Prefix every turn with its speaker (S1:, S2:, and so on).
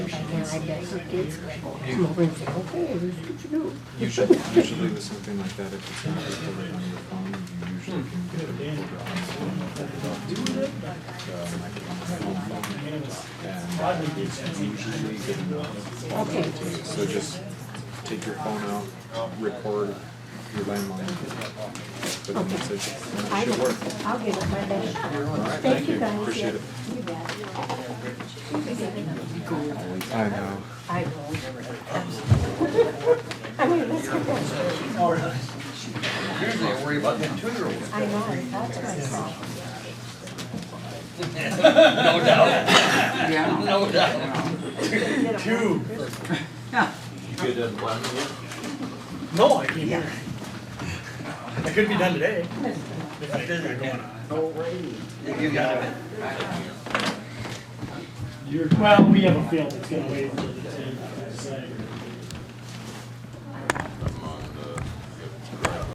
S1: And I bet her kids come over and say, okay, here's what you do.
S2: Usually, usually with something like that, if it's not recorded on your phone, you usually can get it recorded on the phone. The microphone. And it's usually good enough.
S1: Okay.
S2: So just take your phone out, record your landline, put the message, and
S1: I
S2: it should
S1: will,
S2: work.
S1: I'll get it my best.
S2: right,
S1: Thank
S2: thank
S1: you
S2: you.
S1: guys.
S2: Appreciate it.
S1: Yeah, You bet.
S2: I know.
S1: I will. I mean, let's get that.
S3: Usually I worry about them two-year-olds.
S1: I know, that's myself.
S3: No doubt. No doubt.
S4: Two.
S3: You did one year?
S4: No, I can't. hear. I could be done today. If I did, I'd go on.
S3: You got it.
S5: Well, we have a field that's gonna wait until the tenth, I'd say.